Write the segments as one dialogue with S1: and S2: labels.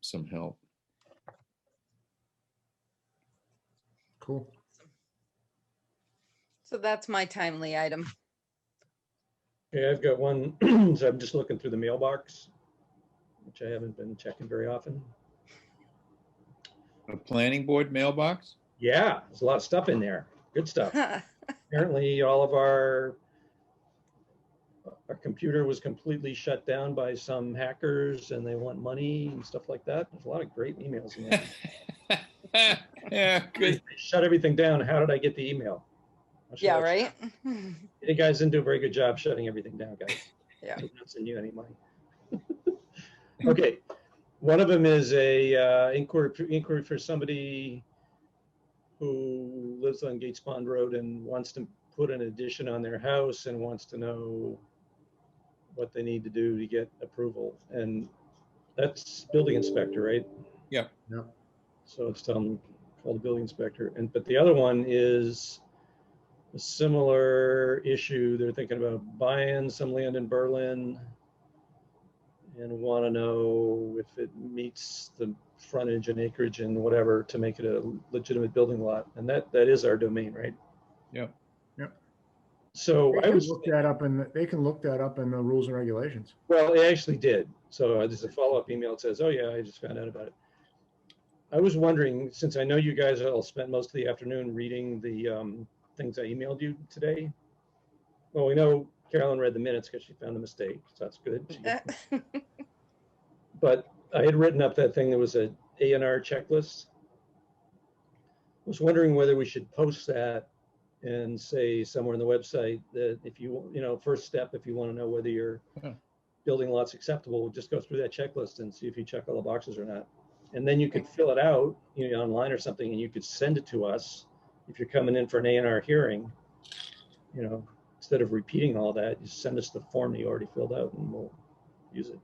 S1: some help.
S2: Cool.
S3: So that's my timely item.
S4: Yeah, I've got one. So I'm just looking through the mailbox, which I haven't been checking very often.
S1: A planning board mailbox?
S4: Yeah, there's a lot of stuff in there. Good stuff. Apparently, all of our our computer was completely shut down by some hackers and they want money and stuff like that. There's a lot of great emails in there.
S1: Yeah,
S4: They
S1: good.
S4: shut everything down. How did I get the email? How should
S3: Yeah,
S4: I-
S3: right?
S4: You guys didn't do a very good job shutting everything down, guys.
S3: Yeah.
S4: I'm not sending you any money. Okay, one of them is a uh, inquiry, inquiry for somebody who lives on Gates Pond Road and wants to put an addition on their house and wants to know what they need to do to get approval. And that's building inspector, right?
S1: Yeah.
S2: Yeah.
S4: So it's telling, call the building inspector. And, but the other one is a similar issue. They're thinking about buying some land in Berlin and want to know if it meets the frontage and acreage and whatever to make it a legitimate building lot. And that, that is our domain, right?
S1: Yep.
S2: Yep.
S4: So
S2: They
S4: I
S2: can
S4: was.
S2: look that up in, the- they can look that up in the rules and regulations.
S4: Well, it actually did. So uh, there's a follow-up email that says, oh yeah, I just found out about it. I was wondering, since I know you guys all spent most of the afternoon reading the um, things I emailed you today. Well, we know Carolyn read the minutes because she found a mistake, so that's good. But I had written up that thing that was a A and R checklist. I Was wondering whether we should post that and say somewhere on the website that if you, you know, first step, if you want to know whether your
S1: Yeah.
S4: building lot's acceptable, just go through that checklist and see if you check all the boxes or not. And then you could fill it out, you know, online or something, and you could send it to us if you're coming in for an A and R hearing. You know, instead of repeating all that, you send us the form that you already filled out and we'll use it.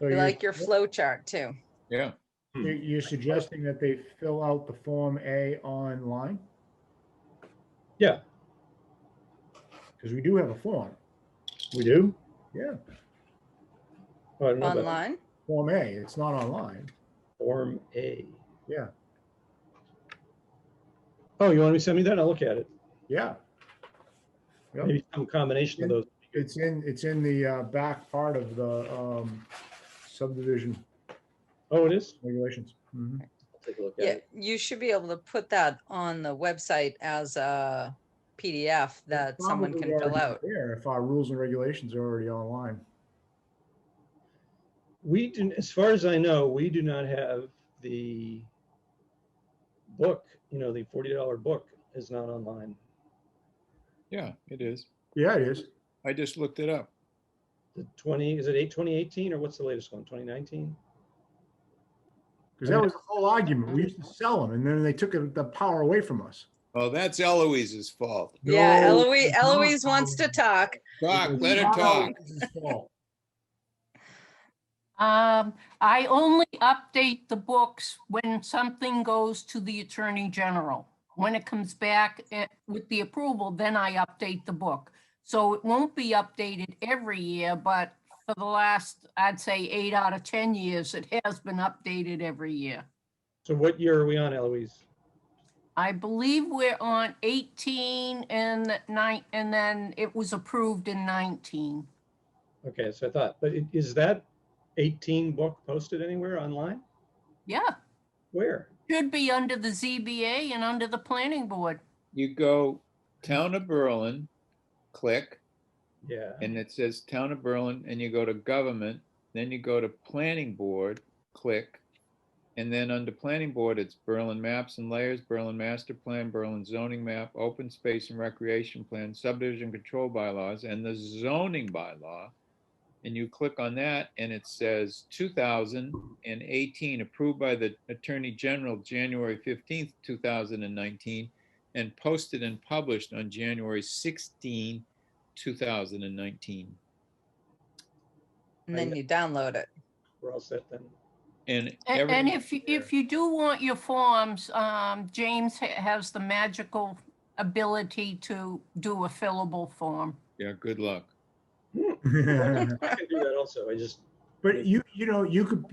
S2: So
S3: We
S2: you're-
S3: like your flow chart too.
S1: Yeah,
S2: You're you're suggesting that they fill out the Form A online?
S4: Yeah.
S2: Because we do have a form,
S4: We do?
S2: yeah,
S4: Oh, I don't know about
S3: Online?
S2: Form A, it's not online.
S4: Form A.
S2: Yeah.
S4: Oh, you want me to send me that? I'll look at it.
S2: Yeah, Yep.
S4: Maybe some combination of those.
S2: it's in, it's in the uh, back part of the um, subdivision
S4: Oh, it is?
S2: regulations. Mhm.
S4: I'll take a look at
S3: Yeah,
S4: it.
S3: you should be able to put that on the website as a PDF that someone
S2: Probably
S3: can fill
S2: already
S3: out.
S2: There, if our rules and regulations are already online.
S4: We do, as far as I know, we do not have the book, you know, the forty dollar book is not online.
S1: yeah, it is.
S2: Yeah, it is.
S1: I just looked it up.
S4: The twenty, is it eight, twenty eighteen, or what's the latest one? Twenty nineteen?
S2: Because that was the whole argument. We used to sell them and then they took it- the power away from us.
S1: Oh, that's Eloise's fault.
S3: Yeah,
S2: No,
S3: Eloise,
S2: it's not
S3: Eloise wants to
S2: Eloise.
S3: talk.
S1: Talk,
S2: It was
S1: let her
S2: not
S1: talk.
S2: Eloise's fault.
S5: Um, I only update the books when something goes to the Attorney General. When it comes back eh, with the approval, then I update the book. So it won't be updated every year, but for the last, I'd say eight out of 10 years, it has been updated every year.
S4: So what year are we on, Eloise?
S5: I believe we're on 18 and nine, and then it was approved in 19.
S4: Okay, so I thought, but i- is that eighteen book posted anywhere online?
S5: Yeah,
S4: Where?
S5: should be under the ZBA and under the planning board.
S1: You go Town of Berlin, click,
S4: Yeah.
S1: and it says Town of Berlin, and you go to Government, then you go to Planning Board, click, and then under Planning Board, it's Berlin Maps and Layers, Berlin Master Plan, Berlin Zoning Map, Open Space and Recreation Plan, Subdivision Control Bylaws, and the Zoning Bylaw. And you click on that, and it says 2018, approved by the Attorney General January 15th, 2019, and posted and published on January 16, 2019.
S3: And then you download it.
S4: We're all set then.
S1: And
S5: A-
S1: every,
S5: And if, you- if you do want your forms, um, James ha- has the magical ability to do a fillable form.
S1: yeah, good luck.
S4: I can do that also. I just
S2: But you, you know, you could,